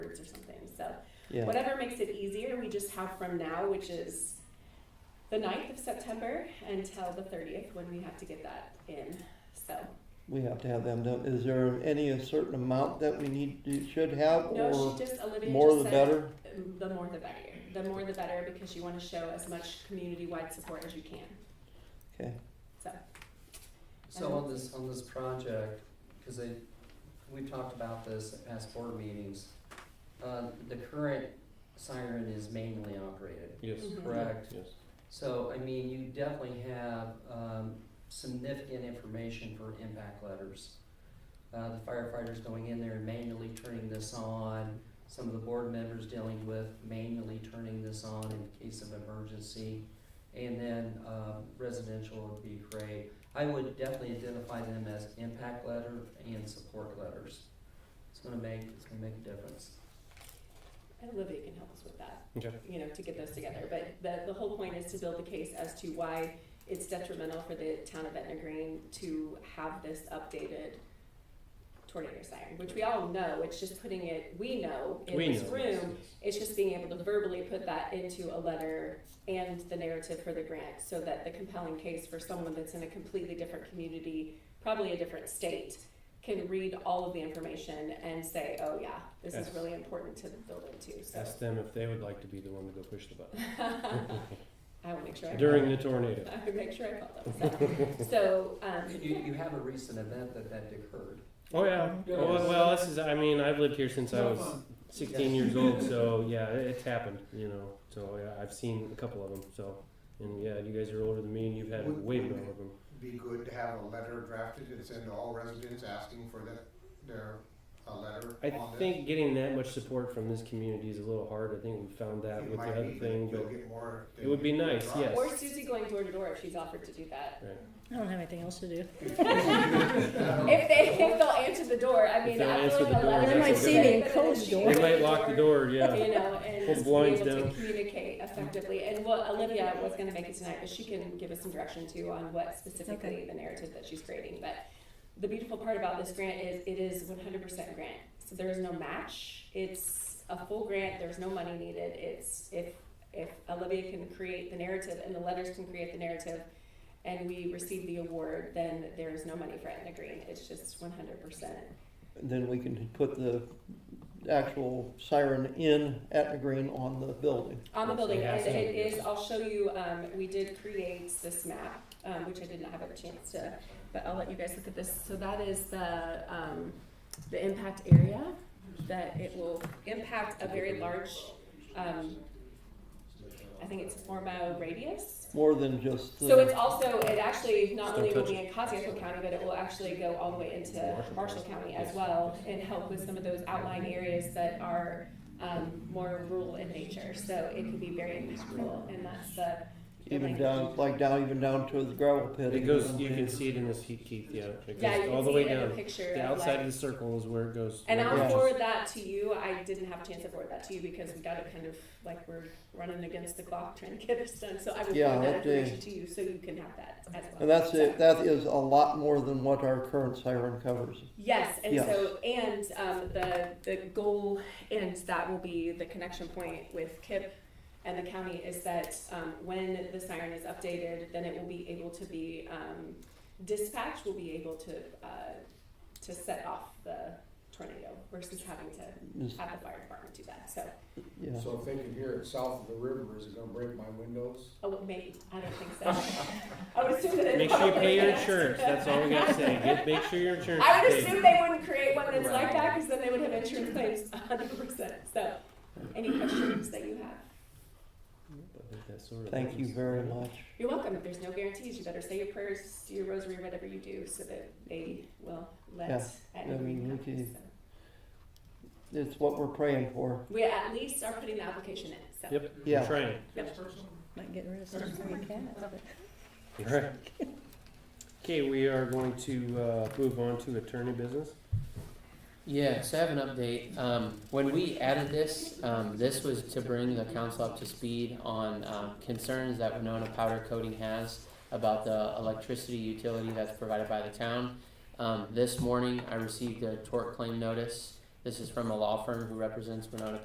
Yeah, Whatever makes it easier, we just have from now, which is the 9th of September until the 30th when we have to get that in. So, we have to have them done. Is there any a certain amount that we need, to- should have no, or she just, Olivia more just the said, better? the more the better. The more the better because you want to show as much community wide support as you can. Okay, So, So on this, on this project, cause they, we've talked about this at past board meetings, uh, the current siren is manually operated, Yes, Mhm. correct? yes. So, I mean, you definitely have, um, significant information for impact letters. Uh, the firefighters going in there and manually turning this on, some of the board members dealing with manually turning this on in case of emergency. And then, um, residential would be great. I would definitely identify them as impact letter and support letters. It's gonna make, it's gonna make a difference. and Olivia can help us with that. Okay. you know, to get those together. But the, the whole point is to build the case as to why it's detrimental for the town of Etna Green to have this updated tornado siren, which we all know, it's just putting it, we know in We know. this yes, room, it's just being able to verbally put that into a letter and the narrative for the grant so that the compelling case for someone that's in a completely different community, probably a different state, can read all of the information and say, oh yeah, this is Yes. really important to the building too, yes. so. Ask them if they would like to be the one to go push the button I will make sure I during the tornado. I will make sure I call them. So, so um, You, you have a recent event that that occurred. Oh yeah. Well, well, this is. I mean, I've lived here since I was 16 years old, so yeah, it- it's happened. You know, so yeah, I've seen a couple of them. So, and yeah, you guys are older than me, and you've had Would- way would more it- of them. be good to have a letter drafted and send to all residents asking for the, their, a letter I on this? think getting that much support from this community is a little hard. I think we found that It with the might other be, but thing, You'll but get more. it would be than- nice, yes. or Susie going door to door if she's offered to do that. Right. I don't have anything else to do. If they if they'll answer the door, I mean, they'll I answer feel the like a door, letter. They might is see good, me and but then close she the goes they door. to might lock the door. Yeah. You know, and Pull just be blinds able to down. communicate effectively. And what Olivia was going to make it tonight, but she can give us some direction too on what specifically the narrative that she's creating. But the beautiful part about this grant is it is 100% grant. So there is no match. It's a full grant. There's no money needed. It's if if Olivia can create the narrative and the letters can create the narrative. And we receive the award, then there is no money for Etna Green. It's just 100%. Then we can put the actual siren in Etna Green on the building. On the Yes, building, it has and it to be. is, I'll show you, um, we did create this map, um, which I did not have a chance to, but I'll let you guys look at this. So that is the, um, the impact area, that it will impact a very large, um, I think it's four mile radius. More than just the. So it's also, it actually, not Just only will don't be in Cottington County, but it will actually go all the way into Marshall. Marshall County as Yes. well and help with some of those outlying areas that are, um, more rural in nature. So it can be very impactful and that's the, Even down, like down, even down to the gravel pit. It goes. You can see it in this heat, Keith. Yeah, it goes yeah, you can all the see way it in down. the picture The of outside like. of the circle is where it goes. And where it I'll Yeah. goes. forward that to you. I didn't have a chance to forward that to you because we got it kind of like we're running against the clock trying to get this done. So I will Yeah, forward that that day. information to you so you can have that as well. And that's So- it, that is a lot more than what our current siren covers. Yes, and Yeah. so and um, the the goal and that will be the connection point with KIP and the county is that um, when the siren is updated, then it will be able to be um, dispatch will be able to uh, to set off the tornado versus having to Is- have the fire department do that. So Yeah, So if they can hear it south of the river, is it gonna break my windows? oh, well, maybe I don't think so. I would assume that it Make sure you probably pay your is. insurance. That's all we gotta say. Get, make sure your insurance. I would is paid. assume they wouldn't create one that's like Right. that because then they would have insurance claims hundred percent. So, any questions that you have? I think that sort of thank you things. very much. You're welcome. If there's no guarantees, you better say your prayers, do your rosary, whatever you do, so that they will let Yeah, at I mean, any time. we can- So, It's what we're praying for. We at least are putting the application in, so. Yep. Yeah. We're trying. Might get rid of some free cats, but. Alright. Okay, we are going to uh, move on to attorney business. Yeah, so I have an update. Um, when we added this, um, this was to bring the council up to speed on, um, concerns that Winona Powder Coating has about the electricity utility that's provided by the town. Um, this morning, I received a tort claim notice. This is from a law firm who represents Winona